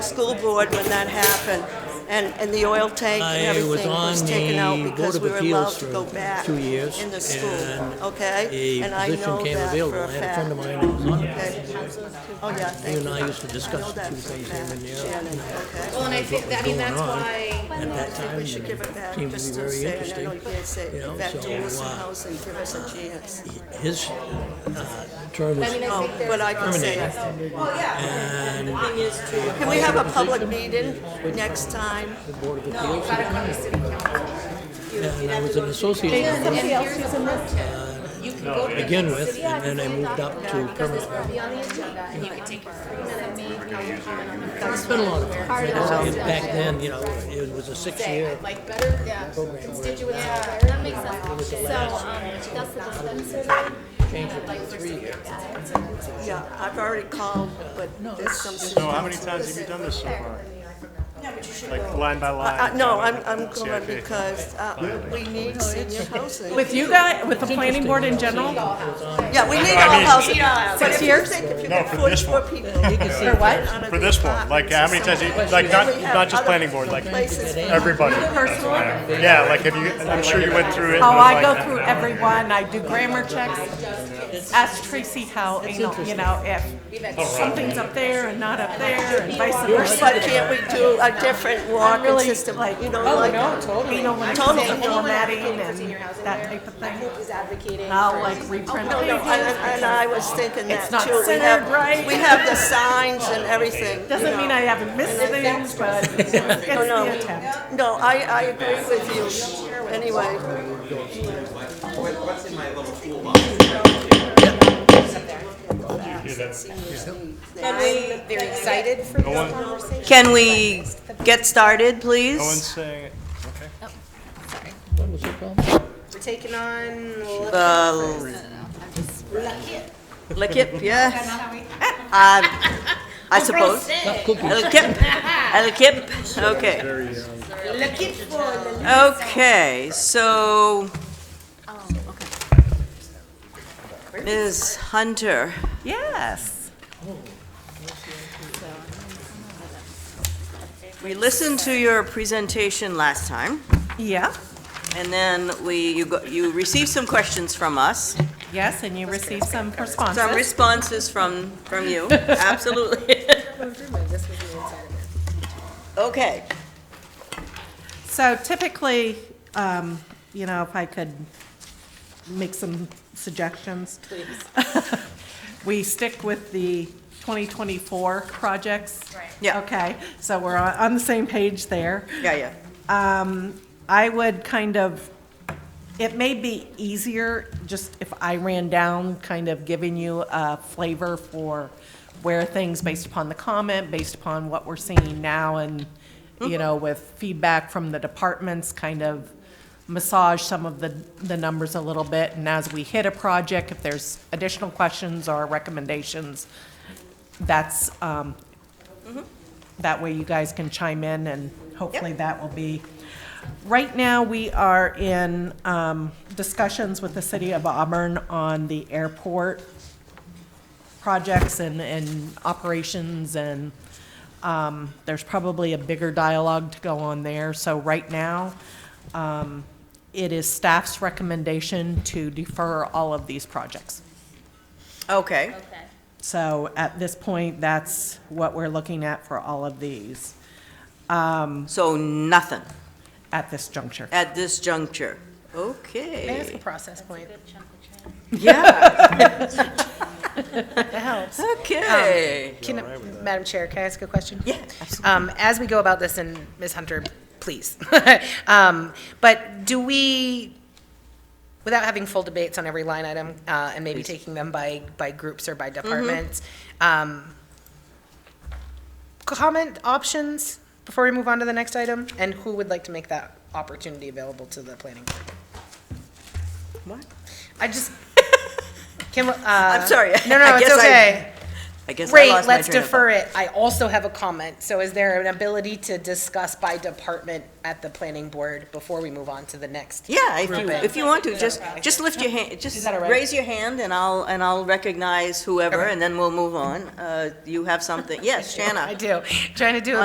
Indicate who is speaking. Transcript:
Speaker 1: school board when that happened, and, and the oil tank and
Speaker 2: I was
Speaker 1: everything was
Speaker 2: on
Speaker 1: taken out
Speaker 2: the Board
Speaker 1: because
Speaker 2: of
Speaker 1: we were allowed
Speaker 2: Appeals
Speaker 1: to go
Speaker 2: for
Speaker 1: back
Speaker 2: two years.
Speaker 1: in the
Speaker 2: and
Speaker 1: school, okay?
Speaker 2: A
Speaker 1: And I
Speaker 2: position
Speaker 1: know
Speaker 2: came
Speaker 1: that
Speaker 2: available.
Speaker 1: for
Speaker 2: I had a friend of
Speaker 1: fact,
Speaker 2: mine who was on it.
Speaker 1: okay? Oh, yeah,
Speaker 2: You
Speaker 1: thank
Speaker 2: and
Speaker 1: you.
Speaker 2: I used to
Speaker 1: I know
Speaker 2: discuss the
Speaker 1: that's
Speaker 2: two
Speaker 1: a
Speaker 2: things here
Speaker 1: fact,
Speaker 2: and there.
Speaker 1: Shannon, okay?
Speaker 3: Well, and I think, I mean, that's why,
Speaker 2: At that time,
Speaker 1: We should give it back,
Speaker 2: seemed
Speaker 1: just
Speaker 2: to
Speaker 1: to
Speaker 2: be
Speaker 1: say,
Speaker 2: very
Speaker 1: and I know you
Speaker 2: interesting.
Speaker 1: can't say,
Speaker 2: you know,
Speaker 1: give back
Speaker 2: so,
Speaker 1: to Wilson
Speaker 2: uh,
Speaker 1: Housing, give us a chance.
Speaker 2: His uh, term
Speaker 3: I
Speaker 2: was,
Speaker 3: mean, I
Speaker 1: Oh,
Speaker 3: think there's.
Speaker 1: but I can say it.
Speaker 2: and
Speaker 1: Can we have a public meeting next time?
Speaker 3: No, you gotta come to city council.
Speaker 2: and I was an associate member
Speaker 3: And here's the protest. You can go
Speaker 2: to
Speaker 3: to.
Speaker 2: begin with, and then I moved up to
Speaker 3: This
Speaker 2: permanent.
Speaker 3: will be on the agenda, and you can take your free minute, make a comment on the.
Speaker 2: It's been a lot of time. It- Back then, you know, it was a six-year
Speaker 3: Like better constituents. Yeah, that makes sense. So, um, that's the
Speaker 2: change of three years.
Speaker 1: Yeah, I've already called, but there's some.
Speaker 4: So how many times have you done this so far? Like line by line?
Speaker 1: Uh, no, I'm, I'm going
Speaker 4: CIP.
Speaker 1: because, uh, we need senior housing.
Speaker 5: With you guys, with the planning board in general,
Speaker 1: Yeah, we need all housing. Six
Speaker 5: years?
Speaker 1: No,
Speaker 4: for this one.
Speaker 1: For what?
Speaker 4: For this one, like how many times, you- like not, not just planning board, like everybody.
Speaker 5: personally,
Speaker 4: Yeah, like have you, I'm sure you went through it. and
Speaker 5: oh,
Speaker 4: was
Speaker 5: I
Speaker 4: like,
Speaker 5: go through everyone, I do grammar checks, ask Tracy how, you know, you know, if something's up there and not up there, and vice versa.
Speaker 1: But can't we do a different walking
Speaker 5: really
Speaker 1: system, you know,
Speaker 5: Oh,
Speaker 1: like,
Speaker 5: no, totally. You know, when
Speaker 1: Totally.
Speaker 5: I'm formatting and that type of thing, and I'll like reprint
Speaker 1: and,
Speaker 5: pages.
Speaker 1: and I was thinking that
Speaker 5: not
Speaker 1: too. We have-
Speaker 5: centered right.
Speaker 1: We have the signs and everything. you
Speaker 5: Doesn't mean
Speaker 1: know.
Speaker 5: I haven't missed things, but it's
Speaker 1: No, no.
Speaker 5: the attempt.
Speaker 1: No, I, I agree with you, anyway.
Speaker 6: What's in my little toolbox?
Speaker 3: They're excited for
Speaker 4: No one, no
Speaker 7: Can we get started,
Speaker 4: one's
Speaker 7: please?
Speaker 4: saying, it. okay.
Speaker 3: taking on.
Speaker 7: The Lickit, yes. Uh, I suppose. Lickit, Lickit, okay.
Speaker 3: Looking for.
Speaker 7: Okay, so Ms. Hunter,
Speaker 5: Yes,
Speaker 7: we listened to your presentation last time,
Speaker 5: yeah,
Speaker 7: and then we, you go- you received some questions from us.
Speaker 5: yes, and you received some
Speaker 7: Some
Speaker 5: responses.
Speaker 7: responses from, from you, absolutely. Okay.
Speaker 5: So typically, um, you know, if I could make some suggestions. Please. We stick with the 2024 projects. Right.
Speaker 7: Yeah.
Speaker 5: Okay, so we're on, on the same page there.
Speaker 7: Yeah, yeah.
Speaker 5: I would kind of, it may be easier just if I ran down, kind of giving you a flavor for where things, based upon the comment, based upon what we're seeing now and, you know, with feedback from the departments, kind of massage some of the, the numbers a little bit. And as we hit a project, if there's additional questions or recommendations, that's, um, that way you guys can chime in and hopefully that will be. Right now, we are in um, discussions with the city of Auburn on the airport projects and, and operations and um, there's probably a bigger dialogue to go on there. So right now, um, it is staff's recommendation to defer all of these projects.
Speaker 7: Okay.
Speaker 5: So at this point, that's what we're looking at for all of these
Speaker 7: So nothing
Speaker 5: at this juncture.
Speaker 7: at this juncture. Okay.
Speaker 3: the process point.
Speaker 8: That helps.
Speaker 7: Okay.
Speaker 8: Can, Madam Chair, can I ask a question?
Speaker 7: Yeah, absolutely.
Speaker 8: Um, as we go about this, and Ms. Hunter, please, um, but do we, without having full debates on every line item, uh, and maybe taking them by, by groups or by
Speaker 3: Mm-hmm.
Speaker 8: departments, um, comment options before we move on to the next item, and who would like to make that opportunity available to the planning? board?
Speaker 7: What?
Speaker 8: I just, can, uh.
Speaker 7: I'm sorry.
Speaker 8: No,
Speaker 7: I
Speaker 8: no, it's
Speaker 7: guess I-
Speaker 8: okay.
Speaker 7: I guess I
Speaker 8: Great,
Speaker 7: lost my
Speaker 8: let's
Speaker 7: train of
Speaker 8: defer it. I also have a comment. So is there an ability to discuss by department at the planning board before we move on to the next?
Speaker 7: thought. Yeah, if you, if you want to, just, just lift your hand, just
Speaker 8: that all right?
Speaker 7: raise your hand and I'll, and I'll recognize whoever
Speaker 8: Okay.
Speaker 7: and then we'll move on. Uh, You have something, yes, Shanna?
Speaker 8: I do. Trying to do